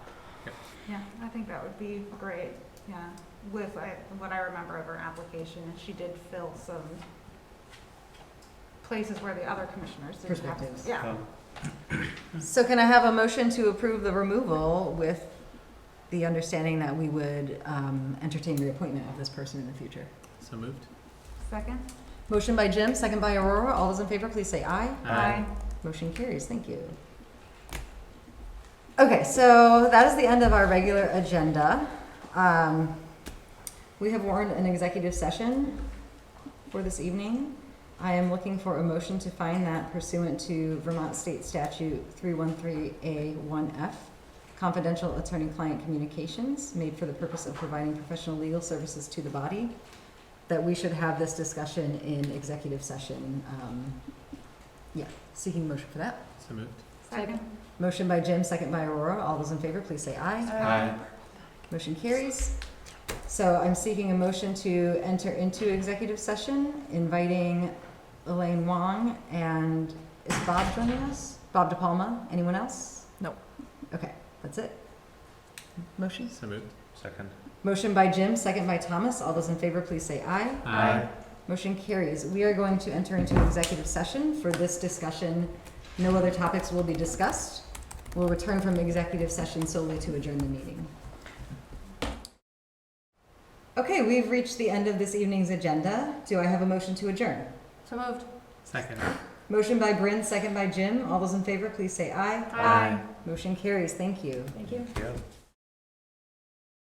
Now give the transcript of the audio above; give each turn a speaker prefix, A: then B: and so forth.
A: Yeah, I think that would be great, yeah. With I- what I remember of her application, and she did fill some places where the other commissioners didn't have.
B: Perspectives.
A: Yeah,
B: So can I have a motion to approve the removal with the understanding that we would um, entertain reappointment of this person in the future?
C: So moved.
A: second?
B: Motion by Jim, second by Aurora. All those in favor, please say aye.
C: Aye.
B: Motion carries. Thank you. Okay, so that is the end of our regular agenda. Um, We have warned an executive session for this evening. I am looking for a motion to find that pursuant to Vermont State Statute 313A1F, confidential attorney-client communications made for the purpose of providing professional legal services to the body, that we should have this discussion in executive session. um, Yeah, seeking motion for that.
C: So moved.
A: Second?
B: Motion by Jim, second by Aurora. All those in favor, please say aye.
C: Aye.
B: Motion carries. So I'm seeking a motion to enter into executive session, inviting Elaine Wong and is Bob joining us? Bob DePalma? Anyone else?
D: No.
B: Okay, that's it. Motions?
C: So moved.
E: Second.
B: Motion by Jim, second by Thomas. All those in favor, please say aye.
C: Aye.
B: Motion carries. We are going to enter into executive session for this discussion. No other topics will be discussed. We'll return from executive session solely to adjourn the meeting. Okay, we've reached the end of this evening's agenda. Do I have a motion to adjourn?
D: So moved.
C: Second.
B: Motion by Bryn, second by Jim. All those in favor, please say aye.
E: Aye.
B: Motion carries. Thank you.
D: Thank you.
E: Yeah.